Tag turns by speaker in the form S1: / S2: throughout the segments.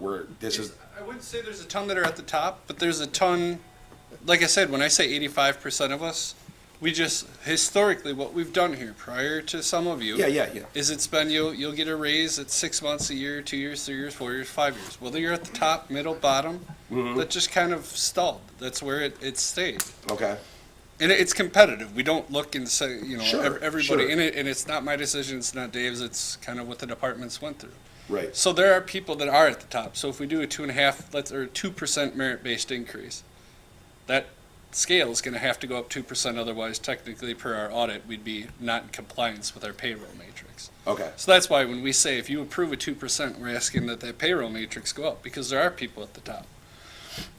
S1: where this is,
S2: I wouldn't say there's a ton that are at the top, but there's a ton, like I said, when I say eighty-five percent of us, we just, historically, what we've done here prior to some of you.
S1: yeah, yeah, yeah.
S2: Is it's been, you'll, you'll get a raise at six months, a year, two years, three years, four years, five years. Whether you're at the top, middle, bottom,
S1: Mm-hmm.
S2: that just kind of stalled. That's where it, it stayed.
S1: Okay.
S2: And it- it's competitive. We don't look and say, you know,
S1: Sure,
S2: ev- everybody
S1: sure.
S2: in it, and it's not my decision, it's not Dave's, it's kind of what the departments went through.
S1: Right.
S2: So there are people that are at the top. So if we do a two and a half, let's or two percent merit-based increase, that scale is going to have to go up two percent. Otherwise, technically, per our audit, we'd be not in compliance with our payroll matrix.
S1: Okay.
S2: So that's why when we say if you approve a two percent, we're asking that that payroll matrix go up because there are people at the top.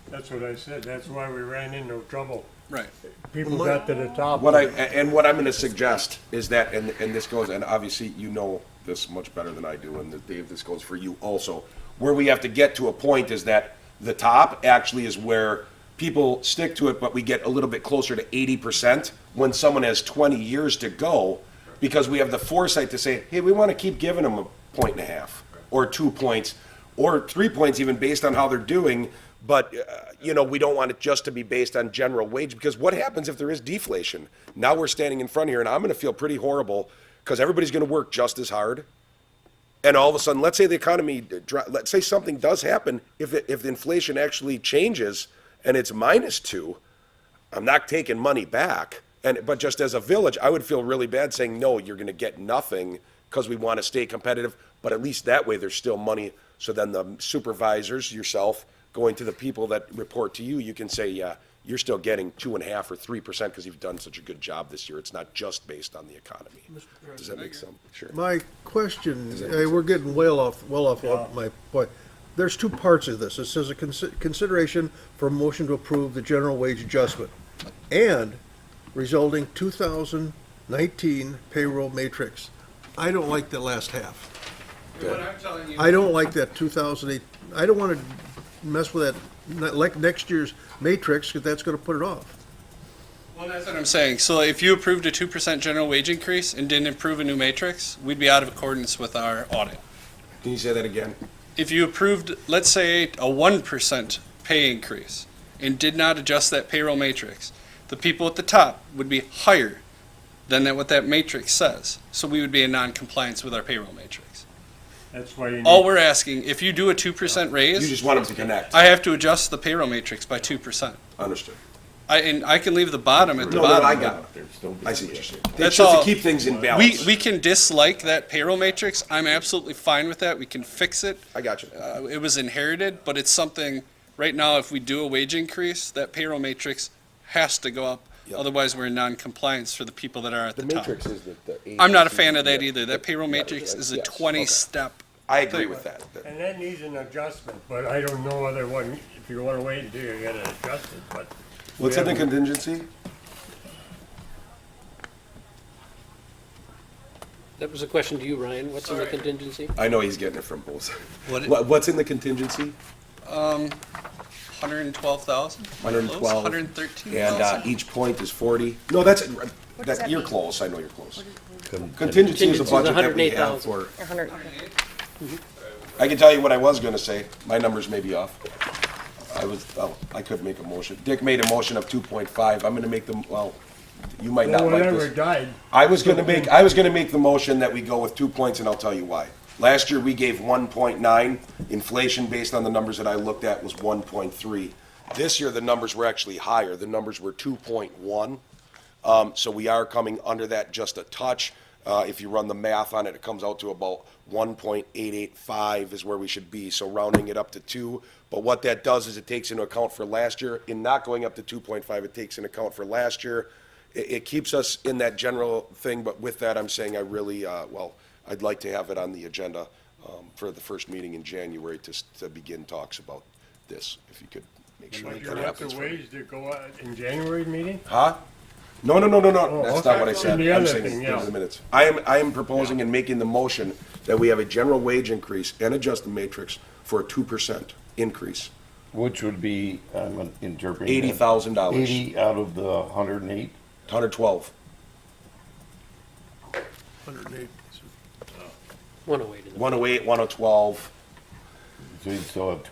S3: That's what I said, that's why we ran into trouble.
S2: Right.
S3: People got to the top.
S1: What I, a- and what I'm gonna suggest is that, and, and this goes, and obviously you know this much better than I do, and that, Dave, this goes for you also. Where we have to get to a point is that the top actually is where people stick to it, but we get a little bit closer to eighty percent when someone has twenty years to go, because we have the foresight to say, hey, we wanna keep giving them a point and a half, or two points, or three points even based on how they're doing, but, uh, you know, we don't want it just to be based on general wage, because what happens if there is deflation? Now we're standing in front here, and I'm gonna feel pretty horrible, because everybody's gonna work just as hard. And all of a sudden, let's say the economy, dr- let's say something does happen, if, it- if the inflation actually changes and it's minus two, I'm not taking money back. And, but just as a village, I would feel really bad saying, no, you're gonna get nothing, because we wanna stay competitive, but at least that way, there's still money. So then the supervisors, yourself, going to the people that report to you, you can say, yeah, you're still getting two and a half or three percent, because you've done such a good job this year. It's not just based on the economy. Does that make sense? Sure.
S4: My question, eh, we're getting well off, well off of my point. There's two parts of this. It says a consi- consideration for a motion to approve the general wage adjustment and resulting 2019 payroll matrix. I don't like the last half.
S2: What I'm telling you,
S4: I don't like that 2008, I don't want to mess with that, not like next year's matrix, because that's going to put it off.
S2: Well, that's what I'm saying. So if you approved a two percent general wage increase and didn't approve a new matrix, we'd be out of accordance with our audit.
S1: Can you say that again?
S2: If you approved, let's say, a one percent pay increase and did not adjust that payroll matrix, the people at the top would be higher than that what that matrix says. So we would be in non-compliance with our payroll matrix.
S3: That's why you
S2: All
S3: need,
S2: we're asking, if you do a two percent
S1: You
S2: raise,
S1: just want them to connect.
S2: I have to adjust the payroll matrix by two percent.
S1: Understood.
S2: I, and I can leave the bottom at the
S1: No, no,
S2: bottom.
S1: I got it. I see what you're saying. It's
S2: That's
S1: just to
S2: all.
S1: keep things in
S2: We,
S1: balance.
S2: we can dislike that payroll matrix. I'm absolutely fine with that. We can fix it.
S1: I got you.
S2: Uh, it was inherited, but it's something, right now, if we do a wage increase, that payroll matrix has to go up.
S1: Yep.
S2: Otherwise, we're in non-compliance for the people that are at the top.
S1: is the. the
S2: I'm not a fan of that
S1: Yeah.
S2: either. That payroll
S1: Yeah,
S2: matrix is a
S1: yes, okay.
S2: twenty-step.
S1: I agree with that.
S3: and that needs an adjustment, but I don't know whether one, if you wanna wait until you get it adjusted, but.
S1: What's in the contingency?
S5: That was a question to you, Ryan. What's in the
S2: Sorry.
S5: contingency?
S1: I know he's getting it from both.
S2: What it-
S1: What, what's in the contingency?
S2: Hundred and twelve thousand?
S1: 112.
S2: Hundred and thirteen
S1: And, uh,
S2: thousand?
S1: each point is forty. No, that's, that,
S6: that
S1: you're
S6: mean?
S1: close. I know you're close. Contingency is
S5: Contingency
S1: a
S5: is
S1: budget that we have
S5: 108,000.
S1: for,
S6: A hundred.
S1: I can tell you what I was gonna say. My numbers may be off. I was, oh, I could make a motion. Dick made a motion of two point five. I'm gonna make them, well, you might not
S3: Well,
S1: like this.
S3: whatever died,
S1: I was gonna make, I was gonna make the motion that we go with two points, and I'll tell you why. Last year, we gave one point nine, inflation based on the numbers that I looked at was one point three. This year, the numbers were actually higher, the numbers were two point one. Um, so we are coming under that just a touch. Uh, if you run the math on it, it comes out to about one point eight eight five is where we should be, so rounding it up to two. But what that does is it takes into account for last year, in not going up to two point five, it takes into account for last year. It, it keeps us in that general thing, but with that, I'm saying I really, uh, well, I'd like to have it on the agenda, um, for the first meeting in January to, s- to begin talks about this, if you could make sure
S3: but
S1: that
S3: you
S1: that
S3: have to
S1: happens. for me.
S3: wait to go out in January meeting?
S1: Huh? No, no, no, no, no.
S3: Oh,
S1: That's not
S3: okay.
S1: what I said.
S3: And the
S1: I'm
S3: other
S1: saying
S3: thing,
S1: it's in
S3: yeah.
S1: the minutes. I am, I am proposing and making the motion that we have a general wage increase and adjust the matrix for a two percent increase.
S7: Which would be, I'm interpreting. that,
S1: $80,000.
S7: Eighty out of the hundred and eight,
S1: Hundred twelve.
S4: 108.
S5: One oh eight in the.
S1: oh One oh eight, one oh twelve.
S7: so you'd still have two